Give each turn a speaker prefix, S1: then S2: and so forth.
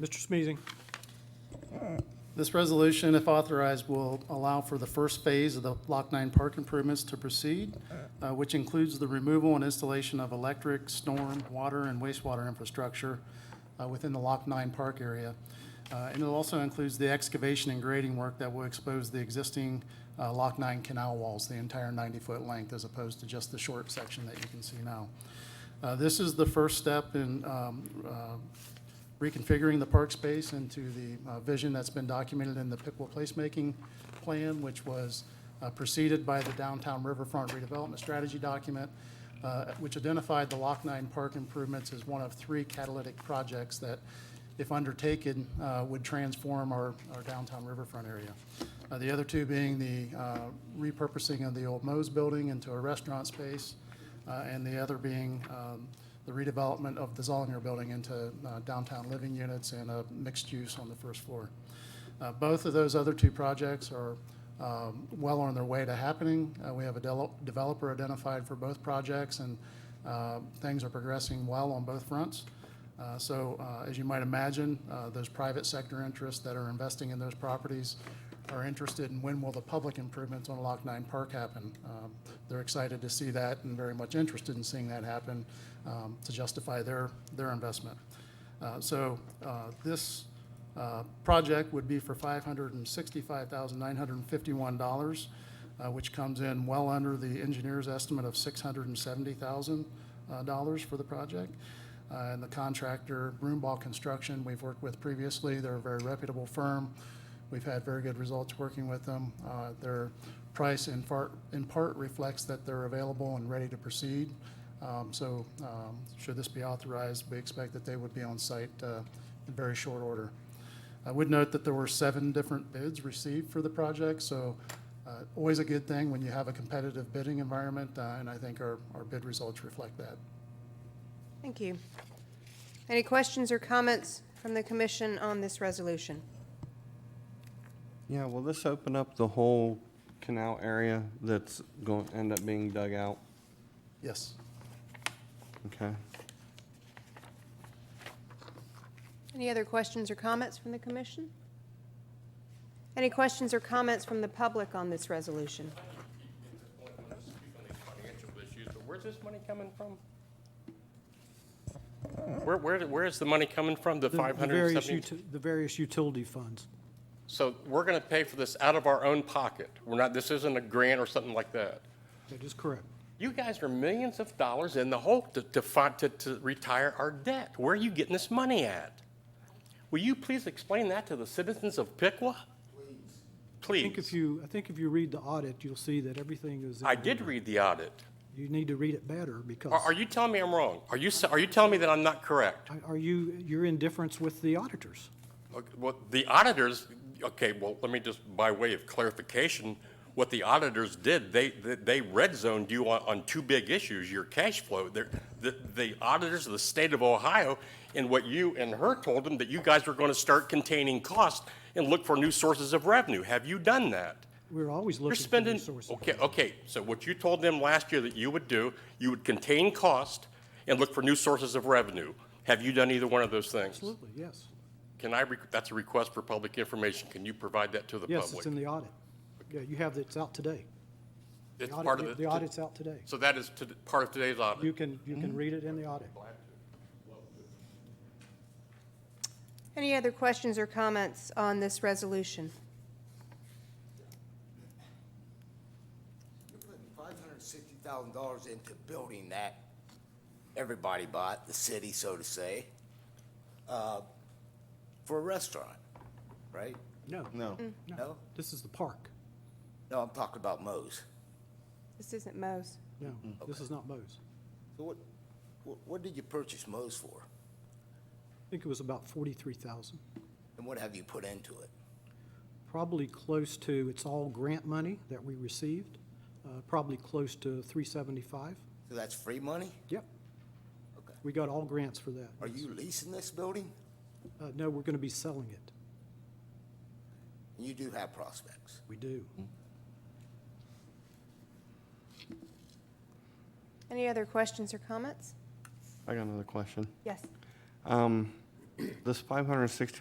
S1: Mr. Smeezing.
S2: This resolution, if authorized, will allow for the first phase of the Block 9 park improvements to proceed, uh, which includes the removal and installation of electric, storm, water, and wastewater infrastructure uh, within the Lock 9 park area. Uh, And it also includes the excavation and grading work that will expose the existing uh, Lock 9 canal walls, the entire 90-foot length, as opposed to just the short section that you can see now. Uh, This is the first step in um, uh, reconfiguring the park space into the uh, vision that's been documented in the Pickwa Placemaking Plan, which was uh, preceded by the Downtown Riverfront Redevelopment Strategy Document, uh, which identified the Lock Nine Park improvements as one of three catalytic projects that, if undertaken, uh, would transform our our downtown riverfront area. Uh, The other two being the uh, repurposing of the old Mo's Building into a restaurant space, uh, and the other being um, the redevelopment of the Zollinger Building into uh, downtown living units and a mixed use on the first floor. Uh, Both of those other two projects are um, well on their way to happening. Uh, We have a del- developer identified for both projects, and uh, things are progressing well on both fronts. Uh, So, uh, as you might imagine, uh, those private sector interests that are investing in those properties are interested in when will the public improvements on Lock Nine Park happen. Um, They're excited to see that and very much interested in seeing that happen um, to justify their, their investment. Uh, So uh, this uh, project would be for $565,951, uh, which comes in well under the engineer's estimate of $670,000 uh, for the project. Uh, And the contractor, Broomball Construction, we've worked with previously, they're a very reputable firm. We've had very good results working with them. Uh, Their price in part, in part reflects that they're available and ready to proceed. Um, So um, should this be authorized, we expect that they would be on site uh, in very short order. I would note that there were seven different bids received for the project, so uh, always a good thing when you have a competitive bidding environment, uh, and I think our, our bid results reflect that.
S3: Thank you. Any questions or comments from the commission on this resolution?
S4: Yeah, will this open up the whole canal area that's going, to end up being dug out?
S2: Yes.
S4: Okay.
S3: Any other questions or comments from the commission? Any questions or comments from the public on this resolution?
S5: financial issues, but where's this money coming from? Where, where, where is the money coming from, the
S1: The- the
S5: five hundred and
S1: various
S5: seventy?
S1: uti- The various utility funds.
S5: So we're gonna pay for this out of our own pocket. We're not, this isn't a grant or something like that.
S1: That is correct.
S5: You guys are millions of dollars in the hole to, to find, to, to retire our debt. Where are you getting this money at? Will you please explain that to the citizens of Pickwa?
S1: I
S5: Please.
S1: think if you, I think if you read the audit, you'll see that everything is. in
S5: I did
S1: order.
S5: read the audit.
S1: You need to read it better because.
S5: Are, are you telling me I'm wrong? Are you, s- are you telling me that I'm not correct?
S1: Are you, you're indifference with the auditors?
S5: Okay, Well, the auditors, okay, well, let me just, by way of clarification, what the auditors did, they, they- they red zoned you on, on two big issues, your cash flow. They're- The, the auditors of the state of Ohio, and what you and her told them, that you guys were gonna start containing costs and look for new sources of revenue. Have you done that?
S1: We're always
S5: You're
S1: looking for
S5: spending,
S1: resources.
S5: okay, okay, so what you told them last year that you would do, you would contain cost and look for new sources of revenue. Have you done either one of those things?
S1: Absolutely, yes.
S5: Can I, requ- that's a request for public information. Can you provide that to the
S1: Yes, it's in
S5: public?
S1: the audit. Yeah, you have, it's out today. The
S5: It's
S1: audit-
S5: part of
S1: The
S5: the,
S1: audit's out today.
S5: so that is to- part of today's
S1: You
S5: audit.
S1: can, you
S5: Mm-hmm.
S1: can read it in the audit.
S3: Any other questions or comments on this resolution?
S6: You're putting five hundred and sixty thousand dollars into building that everybody bought, the city, so to say, uh, for a restaurant, right?
S1: No,
S4: No.
S6: No?
S1: this is the park.
S6: No, I'm talking about Mo's.
S3: This isn't Mo's.
S1: No,
S5: Mm-hmm.
S1: this is not Mo's.
S6: So what, what, what did you purchase Mo's for?
S1: I think it was about 43,000.
S6: And what have you put into it?
S1: Probably close to, it's all grant money that we received, uh, probably close to 375.
S6: So that's free money?
S1: Yep.
S6: Okay.
S1: We got all grants for that.
S6: Are you leasing this building?
S1: Uh, No, we're going to be selling it.
S6: And you do have prospects.
S1: We do.
S3: Any other questions or comments?
S4: I got another question.
S3: Yes.
S4: Um, This five hundred and sixty